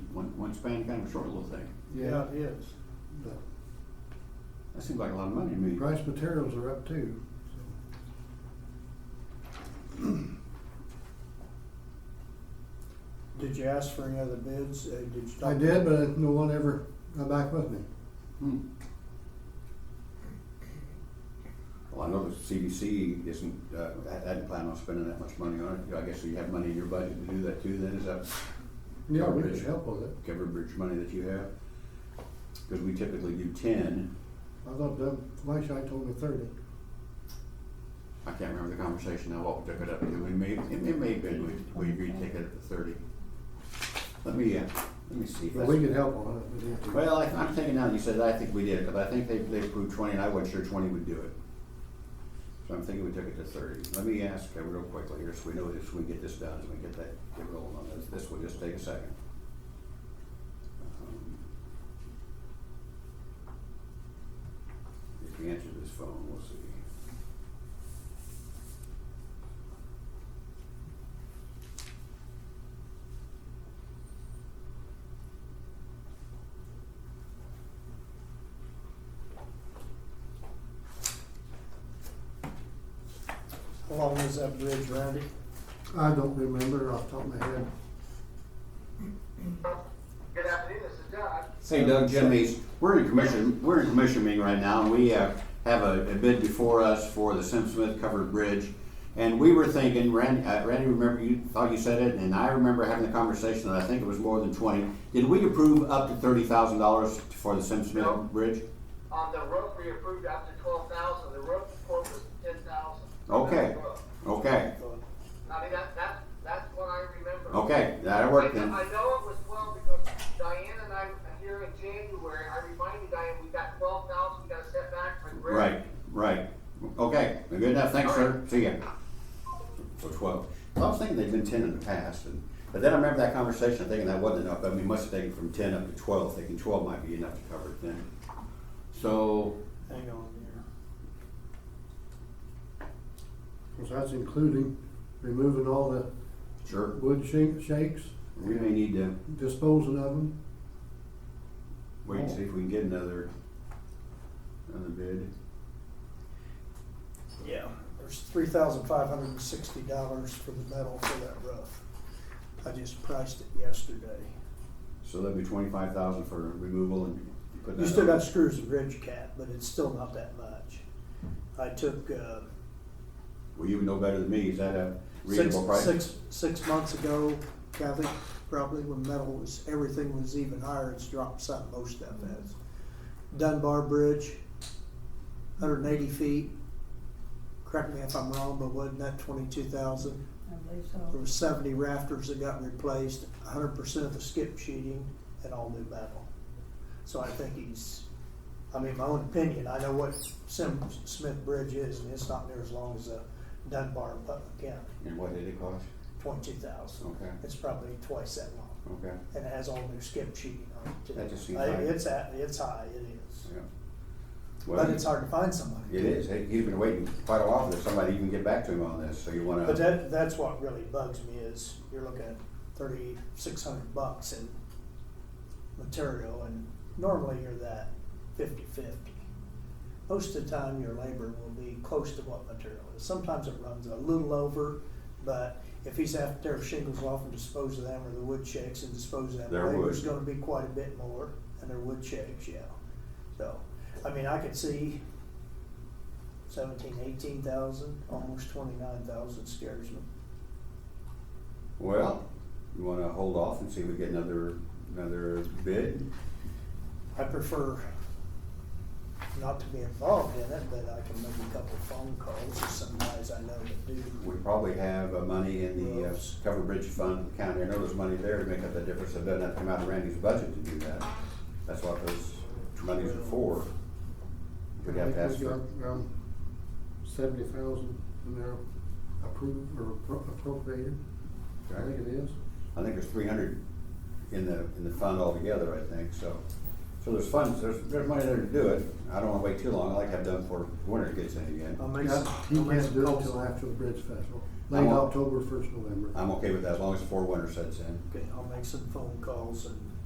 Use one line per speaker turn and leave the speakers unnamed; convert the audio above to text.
department span kind of a short little thing.
Yeah, it is. But
That seems like a lot of money to me.
price materials are up too.
Did you ask for any other bids? Uh, Did you?
so.
talk
I did, but no one ever got back with me.
Hmm. Well, I know the CDC isn't, uh, ha- hadn't planned on spending that much money on it. I guess you have money in your budget to do that too, then, is that
Yeah, we
Garbage.
could help with it.
covered bridge money that you have? Because we typically do ten.
I thought Doug Fleischite told me thirty.
I can't remember the conversation now, what we took it up to. We may, it may- may have been, we, we agreed to take it up to thirty. Let me, uh, let me see.
But we could help on it. if we had to.
Well, I- I'm thinking now, that you said that, I think we did, because I think they, they approved twenty, and I wasn't sure twenty would do it. So I'm thinking we took it to thirty. Let me ask uh, real quickly here, so we know this, we get this done, so we get that, get rolling on this. This will just take a second. Um, If we answer this phone, we'll see.
How long is that bridge, Randy?
I don't remember off the top of my head.
Good afternoon, this is Doug.
Hey Doug, Jim Mees, Um, we're in commission, we're in commission meeting right now, and we uh, have a a bid before us for the Sim Smith covered bridge. And we were thinking, Randy, uh, Randy, remember you thought you said it, and I remember having the conversation, and I think it was more than twenty. Did we approve up to thirty thousand dollars for the Sim Smith
No.
bridge?
On Um, the rope, we approved up to twelve thousand, the rope quote was ten thousand.
Okay. Okay,
I mean, that, that, that's what I remember.
okay, that'll
I
work
know,
then.
I know it was twelve because Diane and I, here in January, I reminded Diane, we got twelve thousand, we got a setback for the bridge.
Right, right. Okay, good enough, thanks, sir, see ya. So twelve. Well, I was thinking they'd been ten in the past, and, but then I remember that conversation, thinking that wasn't enough, I mean, must have taken from ten up to twelve, thinking twelve might be enough to cover it then. So,
Hang on here.
Cause that's including removing all the
sure,
wood shake- shakes,
we may need to
disposing of them.
wait and see if we can get another, another bid.
Yeah. There's three thousand five hundred and sixty dollars for the metal for that roof. I just priced it yesterday.
So that'd be twenty-five thousand for removal and putting that.
You still
on.
got screws and ridge cap, but it's still not that much. I took, uh,
Well, you would know better than me, is that a
six,
reasonable price?
six, six months ago, Kathy, probably when metal was, everything was even higher, it's dropped some, most stuff has. Dunbar Bridge, hundred and eighty feet. Correct me if I'm wrong, but wasn't that twenty-two thousand?
I believe
There
so.
was seventy rafters that got replaced, hundred percent of the skip sheeting and all new metal. So I think he's, I mean, my own opinion, I know what Sim Smith Bridge is, and it's not near as long as a Dunbar, but again,
And what did it cost?
twenty-two thousand.
Okay,
It's probably twice that long,
okay,
and it has all new skip sheeting on it too.
That just seems
I-
high.
It's at, it's high, it is,
yeah. Well,
but it's hard to find somebody.
It is. He- He's been waiting quite a while for somebody to even get back to him on this, so you wanna.
But that, that's what really bugs me is you're looking at thirty-six hundred bucks in material and normally you're that fifty-fifty. Most of the time, your labor will be close to what material is. Sometimes it runs a little over, but if he's after tear shingles off and dispose of them or the wood shakes and dispose of them,
Their
labor's
wood.
gonna be quite a bit more and their wood shakes, yeah. So, I mean, I could see seventeen, eighteen thousand, almost twenty-nine thousand scares me.
Well, you wanna hold off and see if we get another, another bid?
I prefer not to be involved in it, but I can make a couple phone calls to some guys I know that do.
We probably have uh, money in the uh, cover bridge fund for the county. I know there's money there to make up the difference. It doesn't have to come out of Randy's budget to do that. That's what those monies are for. We'd have to
I
ask
think we
for,
got Around seventy thousand in there approved or appro- appropriated, I think it is.
I think there's three hundred in the, in the fund altogether, I think, so. So there's funds, there's, there's money there to do it. I don't wanna wait too long. I like to have done before winter gets in again.
I'll make
Yeah,
some,
He
I'll make
can't
some
do it
calls.
until after the Bridge Festival,
I
late
won't-
October, first November.
I'm okay with that as long as before winter sets in.
Okay, I'll make some phone calls and